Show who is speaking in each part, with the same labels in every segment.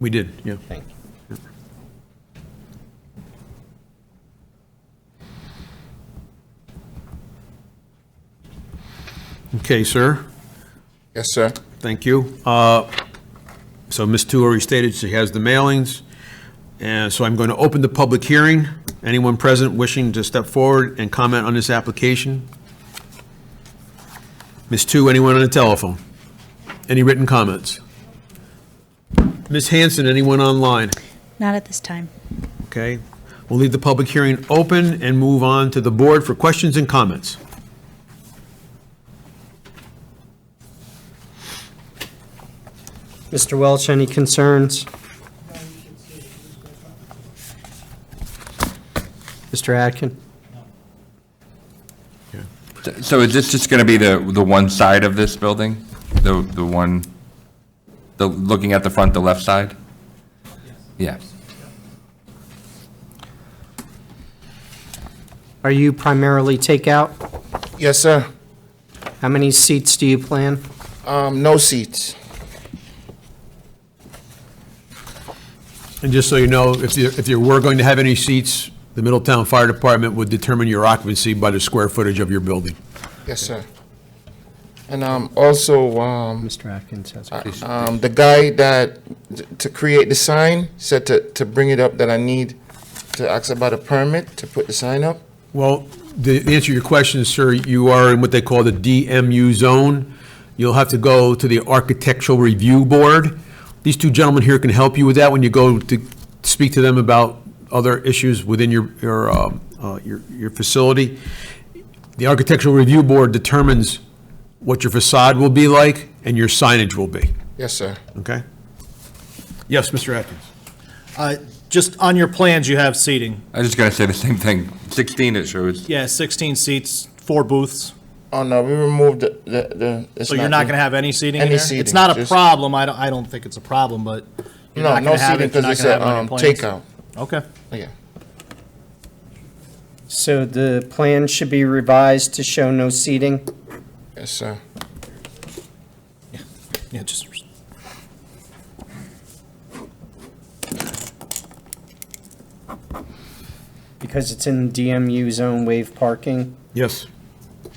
Speaker 1: We did, yeah.
Speaker 2: Thank you.
Speaker 1: Okay, sir,
Speaker 3: Yes, sir.
Speaker 1: thank you. Uh, So Ms. Tu already stated she has the mailings, and so I'm going to open the public hearing. Anyone present wishing to step forward and comment on this application? Ms. Tu, anyone on the telephone? Any written comments? Ms. Hanson, anyone online?
Speaker 4: Not at this time.
Speaker 1: Okay, we'll leave the public hearing open and move on to the board for questions and comments.
Speaker 2: Mr. Welch, any concerns? Mr. Atkin?
Speaker 5: So is this just going to be the, the one side of this building? The, the one, the, looking at the front, the left side? Yeah.
Speaker 2: Are you primarily takeout?
Speaker 3: Yes, sir.
Speaker 2: How many seats do you plan?
Speaker 3: Um, no seats.
Speaker 1: And just so you know, if you, if you were going to have any seats, the Middletown Fire Department would determine your occupancy by the square footage of your building.
Speaker 3: Yes, sir. And, um, also, um,
Speaker 2: Mr. Atkins has.
Speaker 3: um, the guy that, to create the sign, said to, to bring it up that I need to ask about a permit to put the sign up.
Speaker 1: Well, the the answer to your question, sir, you are in what they call the DMU zone. You'll have to go to the Architectural Review Board. These two gentlemen here can help you with that when you go to speak to them about other issues within your, your, um, uh, your your facility. The Architectural Review Board determines what your facade will be like and your signage will be,
Speaker 3: Yes, sir.
Speaker 1: okay? Yes, Mr. Atkins?
Speaker 6: Uh, Just on your plans, you have seating.
Speaker 5: I was just going to say the same thing. 16 it shows.
Speaker 6: Yeah, 16 seats, four booths.
Speaker 3: Oh, no, we removed the, the, the. it's
Speaker 6: So you're not
Speaker 3: there.
Speaker 6: going to have any seating in
Speaker 3: Any
Speaker 6: there?
Speaker 3: seating,
Speaker 6: It's not a
Speaker 3: just-
Speaker 6: problem. I don't, I don't think it's a problem, but you're
Speaker 3: No,
Speaker 6: not
Speaker 3: no
Speaker 6: going to have
Speaker 3: seating
Speaker 6: it. if
Speaker 3: because
Speaker 6: you're not
Speaker 3: it's
Speaker 6: gonna have
Speaker 3: a,
Speaker 6: it on your
Speaker 3: um,
Speaker 6: plans.
Speaker 3: takeout. Oh,
Speaker 6: Okay.
Speaker 3: Yeah.
Speaker 2: So the plan should be revised to show no seating?
Speaker 3: Yes, sir.
Speaker 6: Yeah, just,
Speaker 2: Because it's in DMU zone wave parking?
Speaker 1: Yes.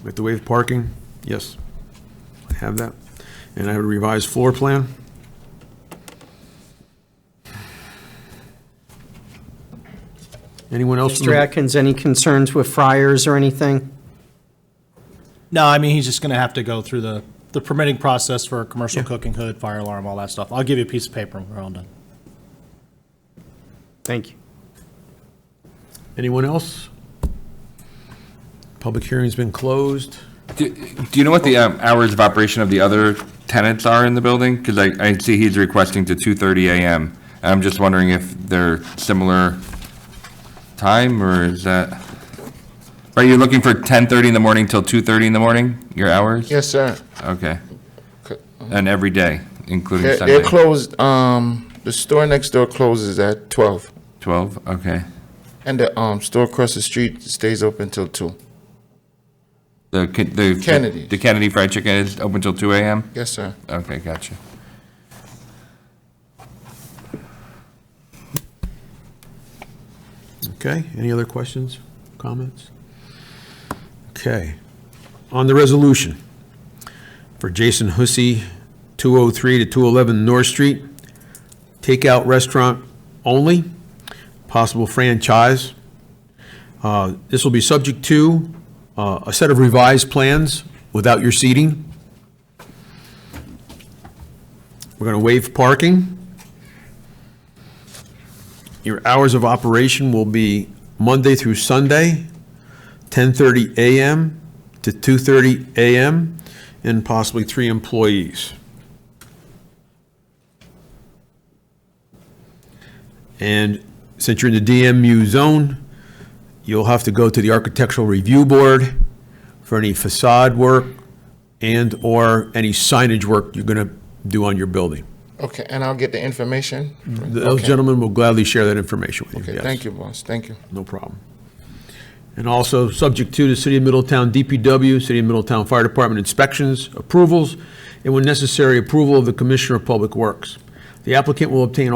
Speaker 1: With the wave parking, yes. I have that. And I have a revised floor plan. Anyone else? from
Speaker 2: Mr.
Speaker 1: the-
Speaker 2: Atkins, any concerns with fryers or anything?
Speaker 6: no, I mean, he's just going to have to go through the, the permitting process for commercial cooking hood, fire alarm, all that stuff. I'll give you a piece of paper when we're all done.
Speaker 2: Thank you.
Speaker 1: Anyone else? Public hearing's been closed.
Speaker 5: Do do you know what the um, hours of operation of the other tenants are in the building? Because I, I see he's requesting to 2:30 AM. I'm just wondering if they're similar time or is that? Are you looking for 10:30 in the morning till 2:30 in the morning, your hours?
Speaker 3: Yes, sir.
Speaker 5: Okay.
Speaker 3: Co-
Speaker 5: And every day, including
Speaker 3: They're,
Speaker 5: Sunday?
Speaker 3: they're closed, um, the store next door closes at twelve.
Speaker 5: 12, okay.
Speaker 3: And the, um, store across the street stays open till two.
Speaker 5: The, Ken- the.
Speaker 3: Kennedy.
Speaker 5: The Kennedy Fried Chicken is open till 2 AM?
Speaker 3: Yes, sir.
Speaker 5: Okay, gotcha.
Speaker 1: Okay, any other questions, comments? Okay. On the resolution for Jason Hussey, 203 to 211 North Street, takeout restaurant only, possible franchise. Uh, This will be subject to uh, a set of revised plans without your seating. We're going to waive parking. Your hours of operation will be Monday through Sunday, 10:30 a.m. to 2:30 a.m., and possibly three employees. And since you're in the DMU zone, you'll have to go to the Architectural Review Board for any facade work and/or any signage work you're going to do on your building.
Speaker 3: Okay, and I'll get the information.
Speaker 1: Those
Speaker 3: Okay.
Speaker 1: gentlemen will gladly share that information with you.
Speaker 3: Okay,
Speaker 1: yes.
Speaker 3: thank you, boss. Thank you.
Speaker 1: No problem. And also, subject to the City of Middletown DPW, City of Middletown Fire Department inspections, approvals, and when necessary, approval of the Commissioner of Public Works. The applicant will obtain all